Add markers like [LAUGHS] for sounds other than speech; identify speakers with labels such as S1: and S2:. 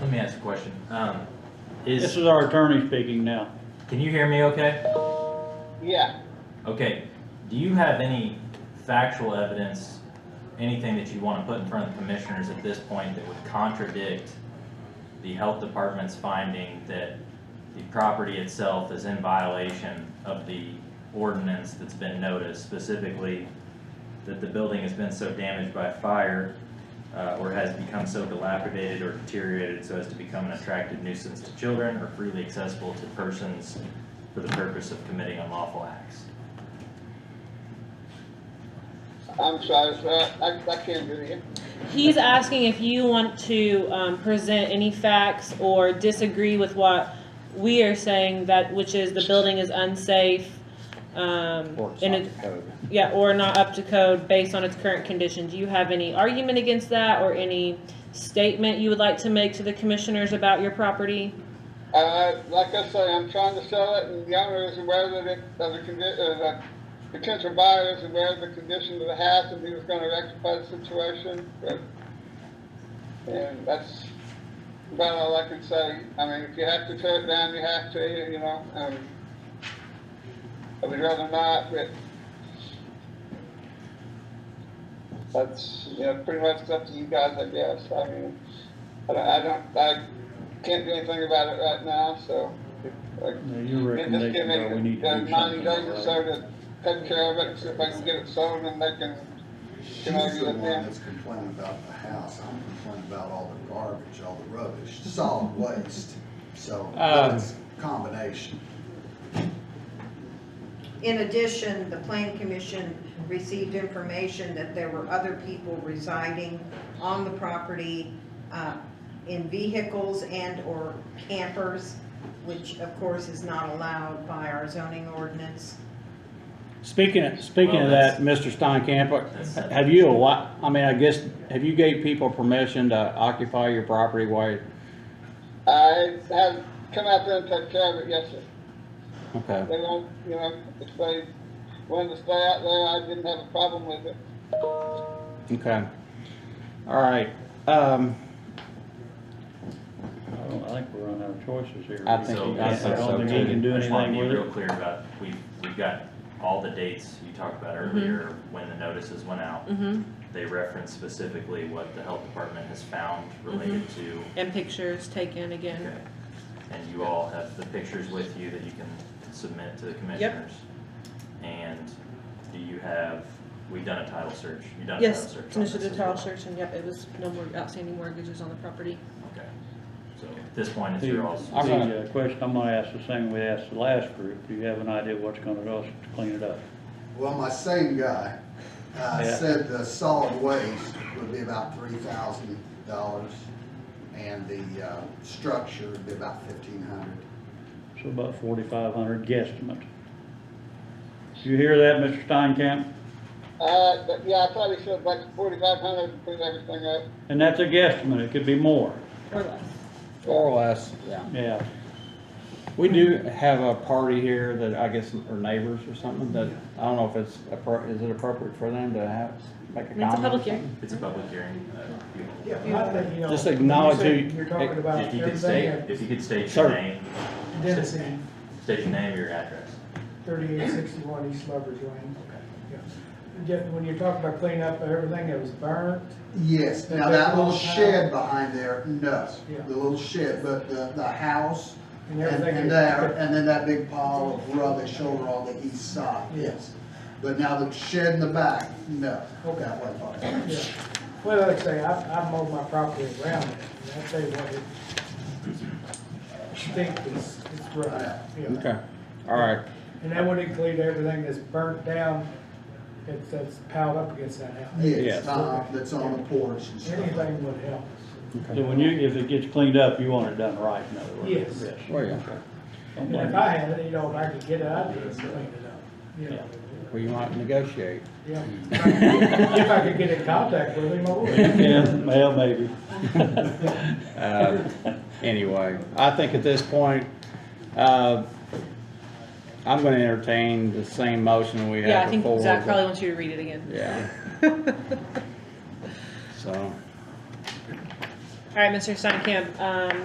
S1: Let me ask a question. Um,
S2: This
S1: is,
S2: is our attorney speaking now.
S1: can you hear me okay?
S3: Yeah,
S1: Okay, do you have any factual evidence, anything that you want to put in front of the commissioners at this point that would contradict the health department's finding that the property itself is in violation of the ordinance that's been noticed, specifically that the building has been so damaged by fire, uh, or has become so dilapidated or deteriorated so as to become an attractive nuisance to children or freely accessible to persons for the purpose of committing unlawful acts.
S3: I'm sorry, sir. I, I can't hear you.
S4: He's asking if you want to um, present any facts or disagree with what we are saying that, which is the building is unsafe. um, and it- Yeah, or not up to code based on its current condition. Do you have any argument against that or any statement you would like to make to the commissioners about your property?
S3: Uh, like I say, I'm trying to sell it and the owner is aware that it, of the condi, uh, the potential buyer is aware of the condition of the house and he was gonna rectify the situation, but. And that's about all I can say. I mean, if you have to tear it down, you have to, you know, um, I would rather not, but. That's, you know, pretty much up to you guys, I guess. I mean, I don't, I don't, I can't do anything about it right now, so. like,
S2: Now, your
S3: then just give
S2: recommendations are we need
S3: it
S2: to
S3: uh,
S2: do
S3: ninety
S2: something
S3: days or so
S2: about it.
S3: to take care of it, see if I can get it sold and they can,
S5: She's
S3: Can I do
S5: the
S3: that
S5: one
S3: now?
S5: that's complaining about the house, I'm complaining about all the garbage, all the rubbish, solid waste, so
S6: Um,
S5: it's a combination.
S7: In addition, the plan commission received information that there were other people residing on the property uh, in vehicles and/or campers, which of course is not allowed by our zoning ordinance.
S2: Speaking, speaking
S1: Well,
S2: of that, Mr. Steinkamp, uh,
S1: That's-
S2: have you, a lot? I mean, I guess, have you gave people permission to occupy your property while,
S3: I have come out there and take care of it, yes, sir.
S2: okay.
S3: They won't, you know, if they wanted to stay out there, I didn't have a problem with it.
S2: Okay. All right. Um,
S8: I don't, I think we're on our choices here.
S2: I think-
S1: So,
S2: I
S1: I
S2: think so
S1: so
S2: too.
S8: don't think he can do
S1: I just wanna
S8: anything
S1: be
S8: with
S1: real
S8: it.
S1: clear about, we've, we've got all the dates you talked about earlier, when the notices went out.
S4: Mm-hmm.
S1: They reference specifically what the health department has found related
S4: Mm-hmm.
S1: to.
S4: And pictures taken
S1: Okay.
S4: again.
S1: And you all have the pictures with you that you can submit to the commissioners? And do you have, we've done a title search, you've done a title
S4: Yes,
S1: search on this
S4: initiated
S1: as
S4: a title
S1: well?
S4: search and yep, it was no more outstanding mortgages on the property.
S1: Okay, so at this point, it's
S8: The,
S1: your all's.
S2: I'm gonna-
S8: the uh, question I'm gonna ask the same we asked the last group, do you have an idea what's gonna cost to clean it up?
S5: Well, my same guy, uh,
S8: Yeah.
S5: said the solid waste would be about three thousand dollars, and the, uh, structure would be about fifteen hundred.
S8: So about forty-five hundred guesstimate. You hear that, Mr. Steinkamp?
S3: Uh, but yeah, I probably should have like forty-five hundred to clean everything up.
S8: And that's a guesstimate, it could be more,
S4: Or less.
S2: Or less, yeah.
S8: yeah.
S2: We do have a party here that I guess, or neighbors or something, that, I don't know if it's, appro- is it appropriate for them to have, make a
S4: I
S2: comment?
S4: mean, it's a public
S2: or
S4: hearing.
S1: It's a public hearing. uh, you all-
S9: Yeah, I think, you know.
S2: Just acknowledge
S9: when you
S2: who-
S9: say You're talking about
S1: If you could state,
S9: everything
S1: if you could state
S2: Sir.
S1: your name,
S9: at Dennison,
S1: state your name, your address.
S9: thirty-eight sixty-one East Lover's Lane. Yeah. Yeah, when you're talking about cleaning up everything that was burnt,
S5: Yes, now that
S9: But that
S5: little
S9: won't have-
S5: shed behind there, no,
S9: Yeah.
S5: the little shed, but the, the house and,
S9: And everything
S5: and uh,
S9: is-
S5: there, and then that big pile of rubbish over on the east side, yes. But now the shed in the back, no,
S9: Okay.
S5: that wasn't part of it.
S9: yeah. Well, like I say, I, I mowed my property around it, and I tell you what, it stinks, it's, it's rough, yeah.
S2: something? Okay, all right.
S9: And that would include everything that's burnt down, that's, that's piled up against that house.
S5: Yes, uh, that's on the porch and stuff.
S9: Anything would help.
S8: So when you, if it gets cleaned up, you want it done right, in other words.
S9: Yes.
S2: Well, yeah.
S8: Don't
S9: And if
S8: blame-
S9: I had it, you know, if I could get it, I'd just clean it up, you know.
S2: Well, you might negotiate.
S9: Yeah. If I could get in contact with him, I would.
S8: [LAUGHS] Yeah, well, maybe.
S2: Uh, Anyway, I think at this point, uh, I'm gonna entertain the same motion we
S4: Yeah, I
S2: had
S4: think
S2: before.
S4: Zach probably wants you to read [LAUGHS] it again.
S2: Yeah. So,
S4: All right, Mr. Steinkamp, um,